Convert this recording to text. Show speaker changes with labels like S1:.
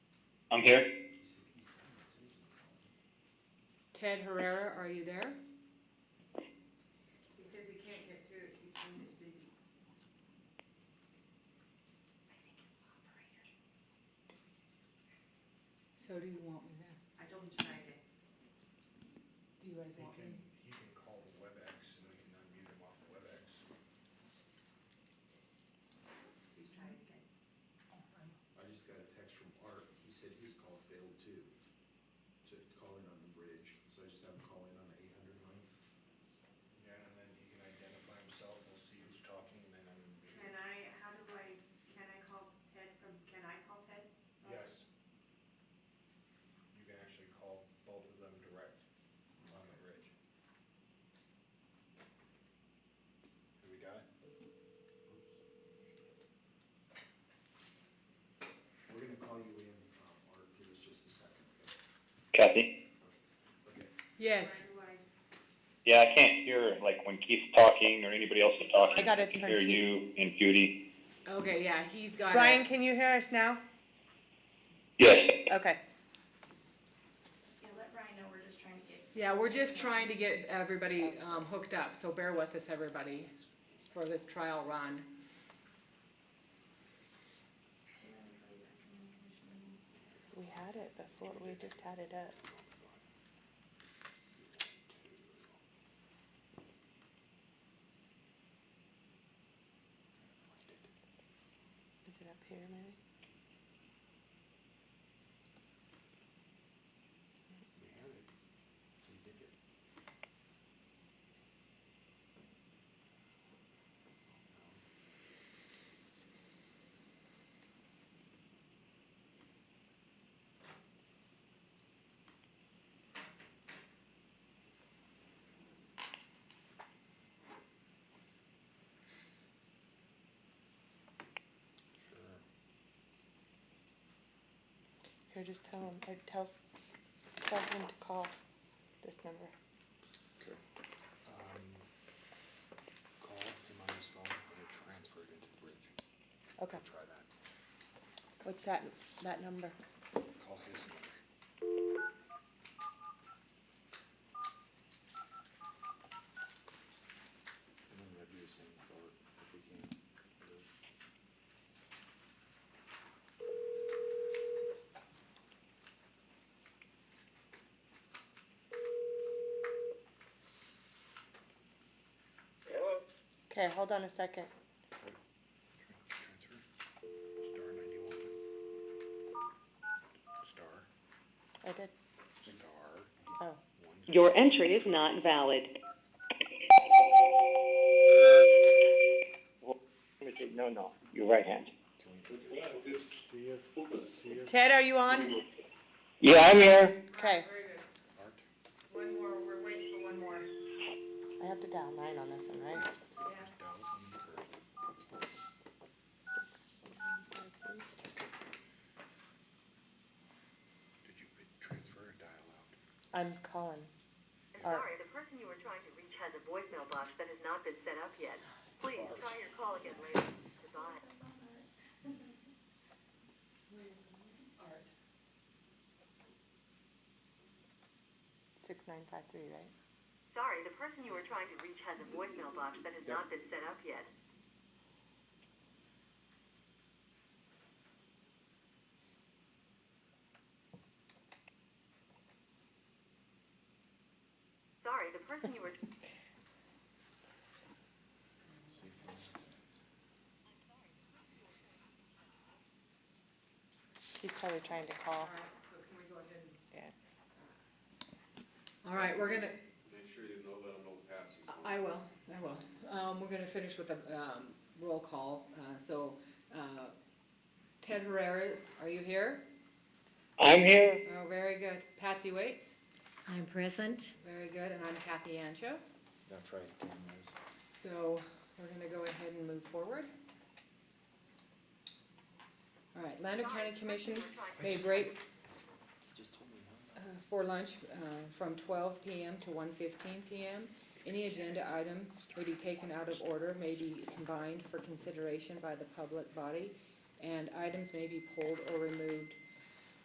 S1: I'm here.
S2: Ted Herrera, are you there?
S3: He says he can't get through, it keeps him as busy. I think it's the operator.
S2: So do you want me there?
S3: I told him Friday.
S2: Do you guys
S4: He
S2: want
S4: can,
S2: me?
S4: he can call WebEx and we can unmute him off of WebEx.
S3: He's trying again.
S4: I just got a text from Art, he said his call failed too, to call in on the bridge, so I just have him call in on the eight hundred line. Yeah, and then he can identify himself, we'll see who's talking, and then unmute
S3: Can I, how do I, can I call Ted from, can I call Ted?
S4: Yes. You can actually call both of them direct on the bridge. Have we got it? We're gonna call you in, um, Art, give us just a second, okay?
S1: Kathy?
S4: Okay.
S2: Yes,
S3: How do I,
S1: Yeah, I can't hear, like, when Keith's talking or anybody else is talking.
S5: I got it,
S1: can hear
S5: Keith.
S1: you and Judy.
S2: okay, yeah, he's got
S5: Brian,
S2: it.
S5: can you hear us now?
S1: Yes,
S5: Okay.
S6: Yeah, let Brian know we're just trying to get,
S2: Yeah, we're just trying to get everybody um, hooked up, so bear with us, everybody, for this trial run.
S5: We had it before, we just had it up. Is it up here, maybe?
S4: We had it, we did it. Sure.
S5: Here, just tell him, or tell, tell him to call this number.
S4: um, call him on his phone and then transfer it into the bridge.
S5: Okay,
S4: Try that.
S5: what's that, that number?
S4: Call his number. And then we'll do the same for, if we can.
S5: Okay, hold on a second.
S4: Transfer. Star ninety-one. Star,
S5: I did,
S4: star,
S5: oh.
S4: one.
S7: Your entry is not valid.
S1: no, no, your right hand.
S4: See if, see if
S5: Ted, are you on?
S1: Yeah, I'm here.
S3: very
S5: Okay,
S3: good.
S4: Art,
S3: One more, we're waiting for one more.
S5: I have to dial nine on this one, right?
S3: Yeah.
S4: is down on the first. Did you put transfer or dial out?
S5: I'm calling. Art.
S8: Sorry, the person you were trying to reach has a voicemail box that has not been set up yet. Please try your call again later. Goodbye.
S5: Six nine five three, right?
S8: Sorry, the person you were trying to reach has a voicemail box that has not been set up yet. Sorry, the person you were
S4: See if he answers.
S5: She's probably trying to call.
S3: All right, so can we go ahead and?
S5: Yeah.
S2: All right, we're gonna,
S9: Make sure you know, let them know Patsy's on.
S2: I will, I will. Um, we're gonna finish with a, um, roll call, uh, so, uh, Ted Herrera, are you here?
S1: I'm here.
S2: Oh, very good. Patsy Waits,
S10: I'm present.
S2: very good, and I'm Kathy Ancho.
S4: That's right, again, guys.
S2: So we're gonna go ahead and move forward. All right, Lander County Commission may break
S4: He just told me one.
S2: uh, for lunch uh, from twelve PM to 1:15 PM. Any agenda item may be taken out of order, may be combined for consideration by the public body, and items may be pulled or removed